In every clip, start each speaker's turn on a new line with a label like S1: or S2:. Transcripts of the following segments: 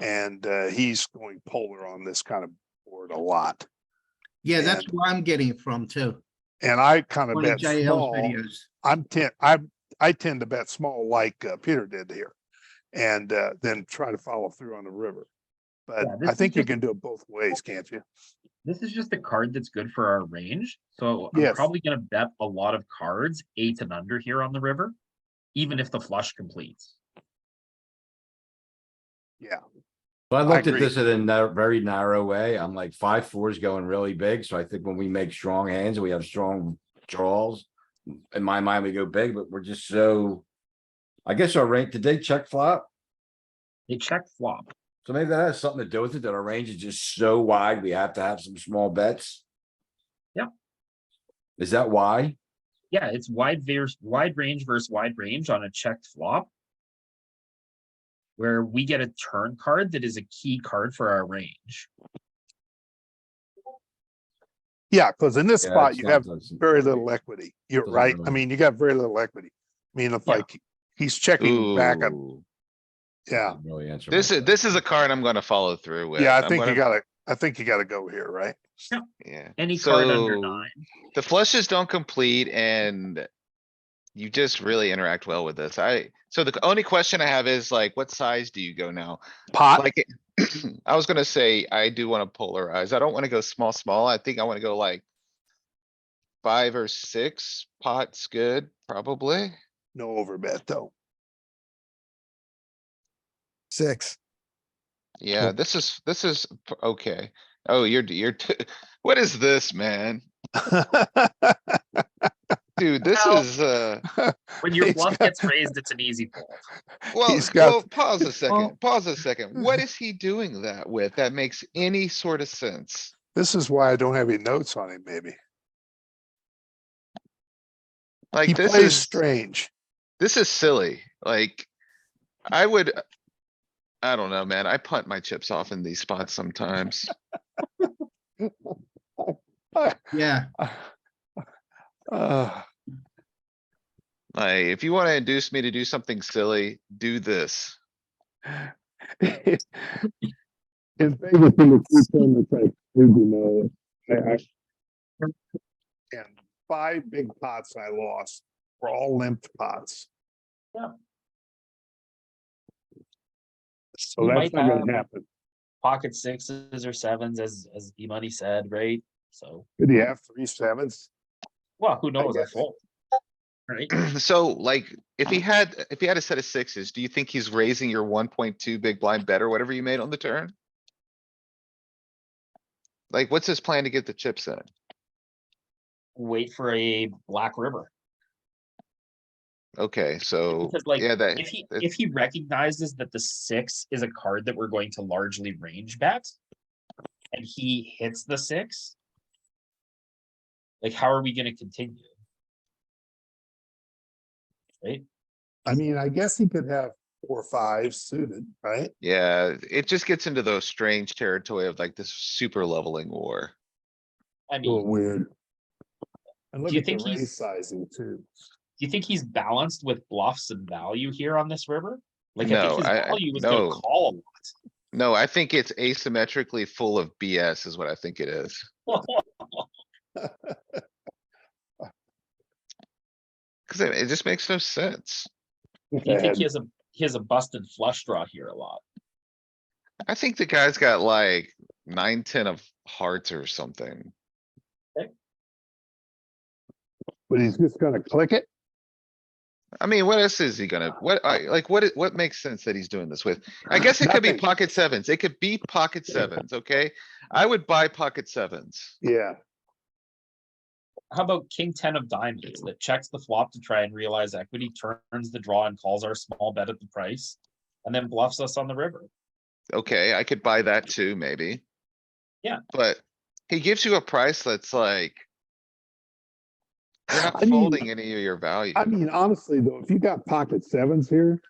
S1: And uh, he's going polar on this kind of board a lot.
S2: Yeah, that's
S1: And-
S2: where I'm getting it from too.
S1: And I kind of
S2: One of
S1: bet
S2: JL's
S1: small.
S2: videos.
S1: I'm ten, I, I tend to bet small like uh, Peter did here. And uh, then try to follow through on the river. But
S3: Yeah, this
S1: I
S3: is
S1: think you
S3: just-
S1: can do it both ways, can't you?
S3: This is just a card that's good for our range, so I'm
S1: Yes.
S3: probably gonna bet a lot of cards, eight and under here on the river. Even if the flush completes.
S4: But I looked at
S1: agree.
S4: this in a na- very narrow way. I'm like five fours going really big, so I think when we make strong hands, we have strong draws. In my mind, we go big, but we're just so. I guess our range, did they check flop?
S3: They check flop.
S4: So maybe that has something to do with it, that our range is just so wide, we have to have some small bets.
S3: Yeah.
S4: Is that why?
S3: Yeah, it's wide vers wide range versus wide range on a checked flop. Where we get a turn card that is a key card for our range.
S1: Yeah, because in this
S4: Yeah,
S1: spot,
S4: it's
S1: you
S4: not
S1: have
S4: doesn't-
S1: very little equity. You're
S4: Doesn't
S1: right. I
S4: really-
S1: mean, you got very little equity. I mean, if
S3: Yeah.
S1: like, he's checking back up,
S5: Ooh,
S1: yeah,
S4: doesn't Really answer. my
S5: This is,
S4: question.
S5: this is a card I'm gonna follow through with.
S1: yeah, I
S5: I'm
S1: think you
S5: gonna-
S1: gotta, I think you gotta go here, right?
S5: Yeah,
S3: Any card under
S5: So-
S3: nine.
S5: the flushes don't complete and. You just really interact well with this. I, so the only question I have is like, what size do you go now?
S1: Pot,
S5: Like, I was gonna say, I do wanna polarize. I don't wanna go small, small. I think I wanna go like. Five or six pots, good, probably.
S1: no overbet though.
S6: Six.
S5: Yeah, this is, this is p- okay. Oh, you're, you're, t- what is this, man? Dude, this
S3: Well-
S5: is, uh.
S3: When your
S1: He's
S3: bluff
S1: got-
S3: gets raised, it's an easy fold.
S5: Well,
S1: He's got-
S5: well, pause a second, pause a second. What is he doing that with? That makes any sort of sense?
S1: This is why I don't have any notes on him, maybe. He
S5: Like, this
S1: plays
S5: is,
S1: strange.
S5: this is silly, like, I would. I don't know, man. I punt my chips off in these spots sometimes.
S2: Yeah,
S1: Uh,
S5: Like, if you wanna induce me to do something silly, do this.
S1: In Vegas, in the three tournaments, I do know. I- I- And five big pots I lost were all limped pots.
S3: Yeah.
S1: So
S3: You
S1: that's
S3: might
S1: not
S3: have-
S1: gonna happen.
S3: Pocket sixes or sevens, as as E-money said, right? So,
S1: Could he have three sevens?
S3: well, who knows? I
S1: guess.
S3: fold. Right?
S5: So like, if he
S3: Uh-huh.
S5: had, if he had a set of sixes, do you think he's raising your one point two big blind bet or whatever you made on the turn? Like, what's his plan to get the chips in?
S3: Wait for a black river.
S5: Okay, so,
S3: Because like,
S5: yeah, that,
S3: if he,
S5: that-
S3: if he recognizes that the six is a card that we're going to largely range bet. And he hits the six. Like, how are we gonna continue? Right?
S1: I mean, I guess he could have four fives suited, right?
S5: yeah, it just gets into those strange territory of like this super leveling war.
S3: I
S1: A little
S3: mean,
S1: weird. And look
S3: you
S1: at the
S3: think
S1: raise
S3: he's-
S1: sizing too.
S3: do you think he's balanced with bluffs and value here on this river? Like, I
S5: No,
S3: think his
S5: I- I-
S3: value was gonna
S5: no.
S3: call a lot.
S5: No, I think it's asymmetrically full of BS is what I think it is. Cause it, it just makes no sense.
S1: Look
S3: Do you think
S1: ahead.
S3: he has a, he has a busted flush draw here a lot?
S5: I think the guy's got like nine, ten of hearts or something.
S1: But he's just gonna click it?
S5: I mean, what else is he gonna, what, I, like, what, i- what makes sense that he's doing this with? I guess it could be
S1: Nothing.
S5: pocket sevens. It could be pocket sevens, okay? I would buy pocket sevens.
S1: Yeah,
S3: How about king ten of diamonds that checks the flop to try and realize equity, turns the draw and calls our small bet at the price? And then bluffs us on the river.
S5: Okay, I could buy that too, maybe.
S3: Yeah.
S5: But he gives you a price that's like. You're
S1: I
S5: not
S1: mean,
S5: folding any of your value.
S1: I mean, honestly, though, if you got pocket sevens here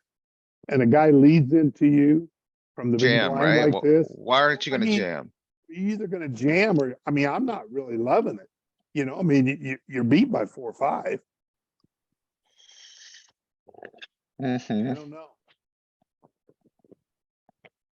S1: and a guy leads into you from the big
S5: Jam, right?
S1: blind like
S5: Wh-
S1: this,
S5: Why aren't you
S1: I
S5: gonna
S1: mean,
S5: jam?
S1: you're either gonna jam or, I mean, I'm not really loving it. You know, I mean, you- you, you're beat by four, or five. I
S5: Mhm.
S1: don't know.